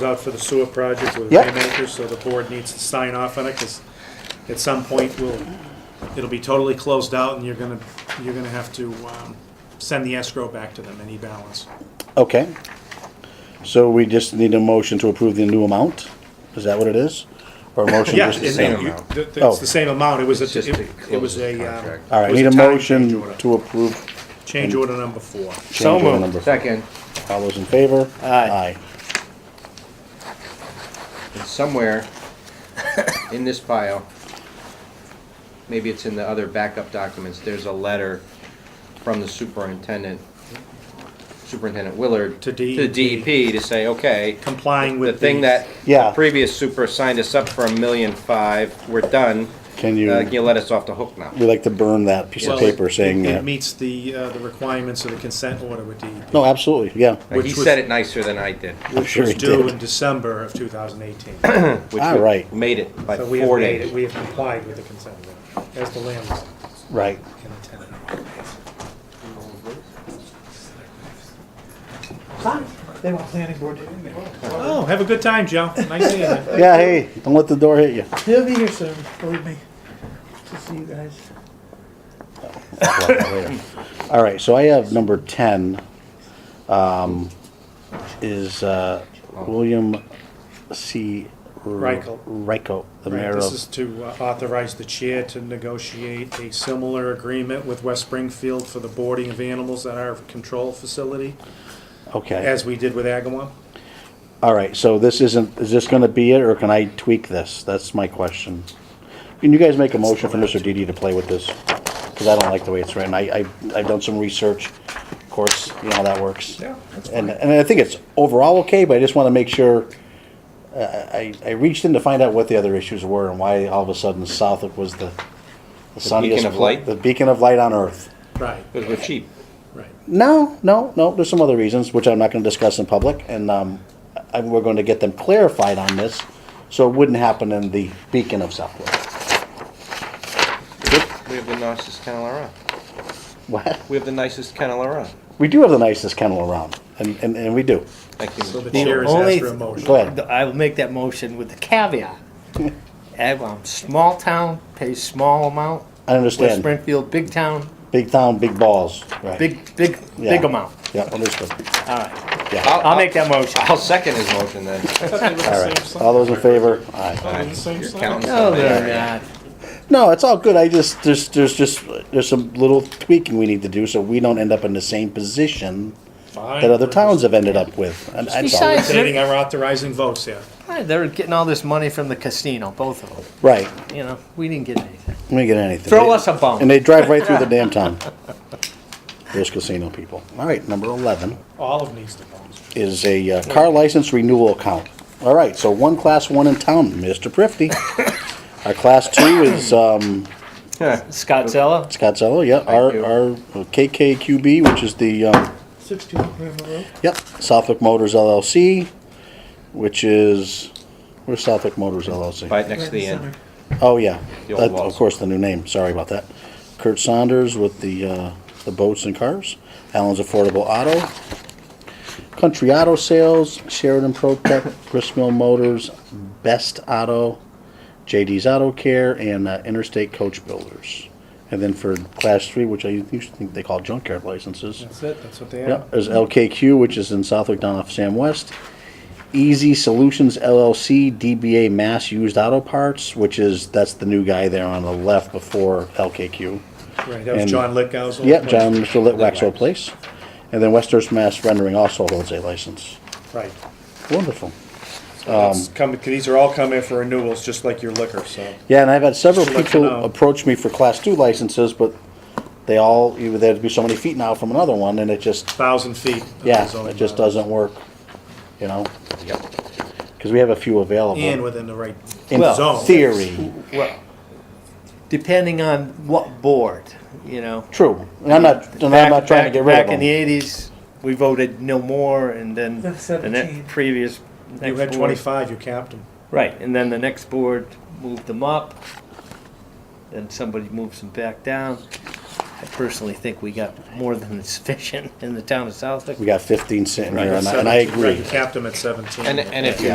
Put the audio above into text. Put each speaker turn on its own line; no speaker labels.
out for the sewer project with
Yeah.
Waymaker, so the board needs to sign off on it, because at some point, we'll, it'll be totally closed out, and you're gonna, you're gonna have to, um, send the escrow back to them, any balance.
Okay. So we just need a motion to approve the new amount? Is that what it is? Or a motion
Yeah,
just
and-
to
and
say?
you-
amount.
th- th-
Oh.
it's the same amount, it was,
It's just
a-
to
it it
close
was
the
a, um.
contract.
All right,
it was
need a
time
motion
change order.
to approve
Change order number four.
change order number. four.
Second,
All those in favor? Aye.
and somewhere in this file, maybe it's in the other backup documents, there's a letter from the superintendent, Superintendent Willard.
To
To
DEP.
DEP to say, okay,
Complying
the
with.
thing that
Yeah.
the previous super signed us up for a million five, we're done.
Can
Uh,
you,
You let us off the hook now.
we like to burn that piece of
Well,
paper saying
it- It
that.
meets the, uh, the requirements of the consent order with DEP.
No, absolutely, yeah.
Like, He
Which was-
said it nicer than I did,
I'm
Which
sure
was
he
due
did.
in December of two thousand eighteen.
which
All
we
right.
made it by
So we have
four
made it,
days.
we have complied with the consent order, as the landlord
Right.
and the tenant.
They want planning board to be
Oh, have a good time, Joe. Nice seeing you.
Yeah, hey, don't let the door hit you.
They'll be here soon, believe me, to see you guys.
All right, so I have number ten, um, is, uh, William C.
Reichel.
Reichel, the
Right,
mayor
this
of,
is to uh, authorize the chair to negotiate a similar agreement with West Springfield for the boarding of animals at our control facility,
okay.
as we did with Agawam.
All right, so this isn't, is this gonna be it, or can I tweak this? That's my question. Can you guys make a motion for Mr. Didi to play with this? Cause I don't like the way it's written. I, I, I've done some research, of course, you know how that works.
Yeah, that's
And, and I think it's overall okay, but I just wanna make sure, uh, I, I reached in to find out what the other issues were and why all of a sudden Southwick was the the sunniest.
of
pla-
light?
The beacon of light on earth.
Right,
Because we're cheap.
right.
No, no, no. There's some other reasons which I'm not going to discuss in public, and um, I, we're going to get them clarified on this, so it wouldn't happen in the beacon of Southwick.
We have the nicest kennel around.
What?
We have the nicest kennel around.
We do have the nicest kennel around, and, and, and we do.
Thank you.
So the
Mr. Paul.
chair is
only-
asked for a motion.
Go ahead.
I will make that motion with the caveat. Agawam, small town, pays small
I
amount. West
understand.
Springfield, big town,
Big town, big balls. Right.
big, big,
Yeah.
big amount.
Yeah, understood.
All right,
Yeah.
I'll-
I'll make that motion.
I'll second his motion then.
All right. All those in favor? Aye.
Your accountant's
Oh,
not there.
God.
No, it's all good. I just there's there's just there's some little tweaking we need to do so we don't end up in the same position that other towns have ended up with. And that's all.
Besides-
Stating our authorizing votes here.
Hey, They were getting all this money from the casino, both of them.
Right.
You know, we didn't get anything.
Let me get anything.
Throw us a bone.
And they drive right through the damn town. Those casino people. All right, number 11
All of needs to vote.
is a uh, car license renewal account. All right, so one class one in town, Mr. Prifty. Our class two is um,
Yeah.
Scott Zella,
Scott Zello, yeah, our,
you.
our KKQB, which is the, um,
Sixteen Grandma Road.
yep, Suffolk Motors LLC, which is, where's Suffolk Motors LLC?
Right next
right
to the
in
end.
center.
Oh, yeah.
The
That-
old walls.
Of course, the new name, sorry about that. Kurt Saunders with the, uh, the boats and cars, Allen's Affordable Auto, Country Auto Sales, Sheridan Pro Tech, Gristmill Motors, Best Auto, JD's Auto Care, and uh, Interstate Coach Builders. And then for Class 3, which I used to think they call junkyard licenses.
That's it, that's what they
Yeah,
have.
there's LKQ, which is in Southwick down off Sam West. Easy Solutions LLC, DBA Mass Used Auto Parts, which is, that's the new guy there on the left before LKQ.
Right, that was
And-
John Litgow's old
Yep,
place.
John, Mr. Litwack's old place. And then Westers Mass Rendering also holds a license.
Right.
um, Wonderful.
It's come- These are all coming for renewals, just like your liquor, so.
Yeah, and I've had several
Just to let you
people
know.
approach me for Class 2 licenses, but they all, either they had to be so many feet now from another one, and it just,
Thousand feet.
yeah,
is only
it just
allowed.
doesn't work, you know? Because we have a few available.
And within the right
uh, in
Well,
zone.
theory.
well, depending on what board, you know.
True. And I'm not, and I'm not
Back-
trying to
back-
get rid of
Back in the
them.
eighties, we voted no more, and
Then
then the ne-
17.
previous.
You
next
had
board-
twenty-five, you capped them.
Right, and then the next board moved them up, then somebody moves them back down. I personally think we got more than sufficient in the town of Southwick.
We got fifteen sitting here, and I- and I
Seventeen, right,
agree.
You capped them at seventeen.
And, and if you